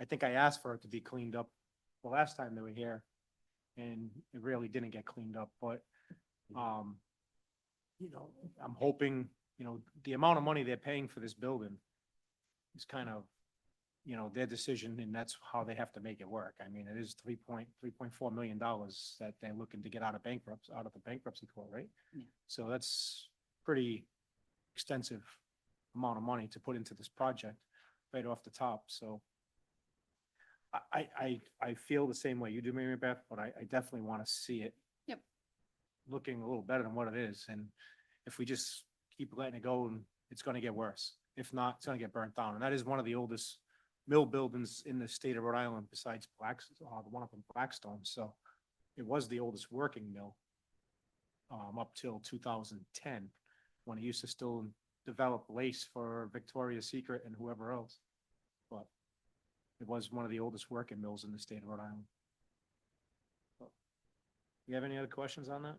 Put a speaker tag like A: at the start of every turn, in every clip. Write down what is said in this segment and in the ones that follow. A: I think I asked for it to be cleaned up the last time they were here. And it really didn't get cleaned up, but, um, you know, I'm hoping, you know, the amount of money they're paying for this building is kind of, you know, their decision and that's how they have to make it work. I mean, it is three point, three point four million dollars that they're looking to get out of bankruptcy, out of the bankruptcy court, right?
B: Yeah.
A: So that's pretty extensive amount of money to put into this project right off the top, so. I, I, I, I feel the same way you do, Mary Beth, but I, I definitely want to see it.
B: Yep.
A: Looking a little better than what it is, and if we just keep letting it go, and it's gonna get worse. If not, it's gonna get burnt down, and that is one of the oldest mill buildings in the state of Rhode Island besides Blacks, uh, the one up in Blackstone, so. It was the oldest working mill. Um, up till two thousand ten, when it used to still develop lace for Victoria's Secret and whoever else. But it was one of the oldest working mills in the state of Rhode Island. So, You have any other questions on that?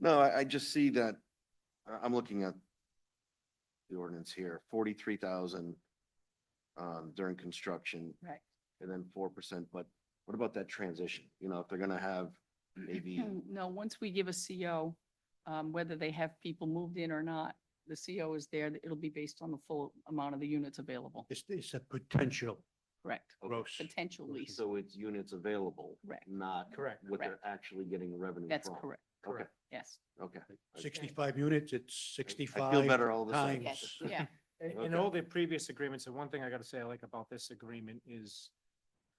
C: No, I, I just see that, I- I'm looking at the ordinance here, forty-three thousand um, during construction
B: Right.
C: and then four percent, but what about that transition? You know, if they're gonna have maybe,
B: No, once we give a CO, um, whether they have people moved in or not, the CO is there, it'll be based on the full amount of the units available,
D: It's, it's a potential
B: correct?
D: gross.
B: Potential lease,
C: so it's units available,
B: correct,
C: not
A: Correct.
C: what they're actually getting revenue from.
B: that's correct,
C: Okay,
B: yes,
C: okay.
D: Sixty-five units, it's
C: I
D: sixty-five.
C: feel better all of a sudden.
D: times.
B: yes, yeah,
A: In all the previous agreements, and one thing I gotta say I like about this agreement is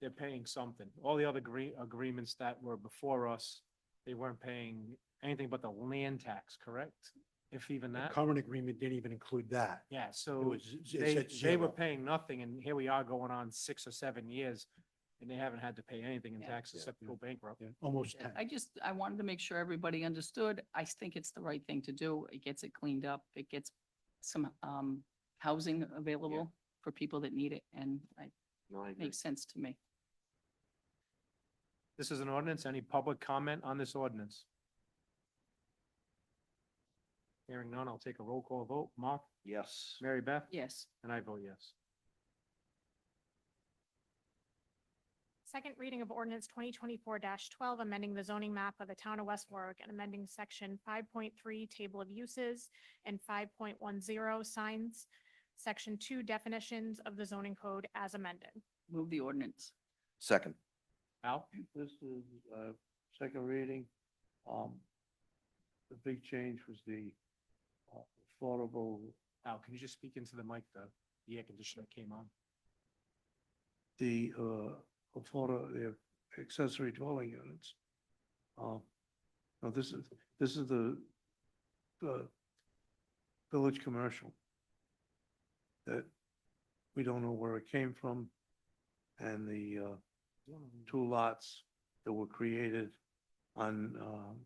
A: they're paying something. All the other agree- agreements that were before us, they weren't paying anything but the land tax, correct? If even
D: The
A: that,
D: current agreement didn't even include that.
A: yeah, so.
D: It was, it's
A: They,
D: at
A: they were
D: zero.
A: paying nothing and here we are going on six or seven years and they haven't had to pay anything in
B: Yeah.
A: taxes
C: Yeah.
A: except go bankrupt.
D: Yeah, Almost ten.
B: I just, I wanted to make sure everybody understood, I think it's the right thing to do, it gets it cleaned up, it gets some, um, housing available for people that need it, and it
C: No, I agree.
B: makes sense to me.
A: This is an ordinance. Any public comment on this ordinance? Hearing none, I'll take a roll call vote. Mark,
C: Yes,
A: Mary Beth?
B: Yes,
A: And I vote yes.
E: Second reading of ordinance twenty twenty-four twelve, amending the zoning map of the town of West Warwick and amending section five point three, table of uses, and five point one zero, signs, section two, definitions of the zoning code as amended.
B: move the ordinance,
C: second.
A: Al?
F: This is, uh, second reading. Um, the big change was the uh, affordable,
A: Al, can you just speak into the mic? The, the air conditioner came on.
F: the, uh, affordable, the accessory dwelling units. Um, now this is, this is the, the village commercial that we don't know where it came from and the, uh, two lots that were created on, um,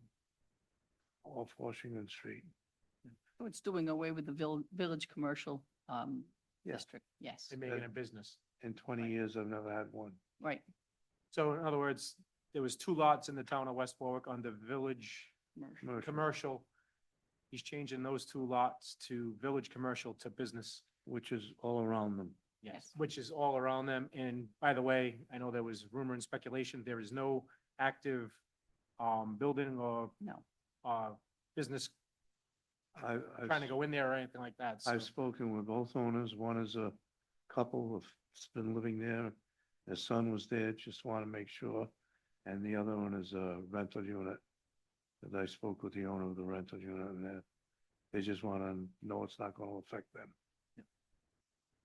F: off Washington Street.
B: So Oh, it's doing away with the vill- village commercial, um,
F: Yeah.
B: district, yes.
A: They make it a business.
F: In twenty years, I've never had one.
B: Right,
A: So in other words, there was two lots in the town of West Warwick under village
B: commercial.
F: commercial,
A: commercial. He's changing those two lots to village commercial to business.
F: Which is all around them.
B: Yes.
A: Which is all around them. And by the way, I know there was rumor and speculation, there is no active um, building or
B: no,
A: uh, business
F: I, I've-
A: trying to go in there or anything like that. So
F: I've spoken with both owners. One is a couple of, has been living there. Their son was there, just want to make sure. And the other one is a rental unit. And I spoke with the owner of the rental unit and they, they just want to know it's not going to affect them.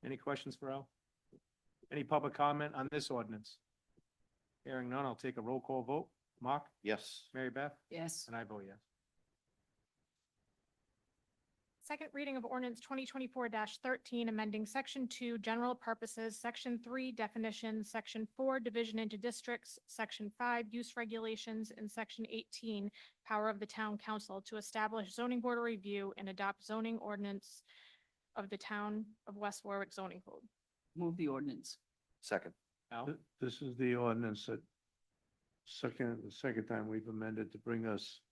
A: any questions for Al? Any public comment on this ordinance? Hearing none, I'll take a roll call vote. Mark,
C: Yes,
A: Mary Beth,
B: yes,
A: and I vote yes.
E: Second reading of ordinance twenty twenty-four thirteen, amending section two, general purposes, section three, definitions, section four, division into districts, section five, use regulations, and section eighteen, power of the town council to establish zoning board of review and adopt zoning ordinance of the town of West Warwick zoning code.
B: move the ordinance,
C: second.
A: Al?
F: Th- This is the ordinance that second, the second time we've amended to bring us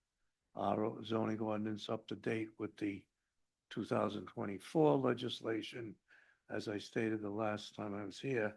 F: our zoning ordinance up to date with the two thousand twenty-four legislation. As I stated the last time I was here,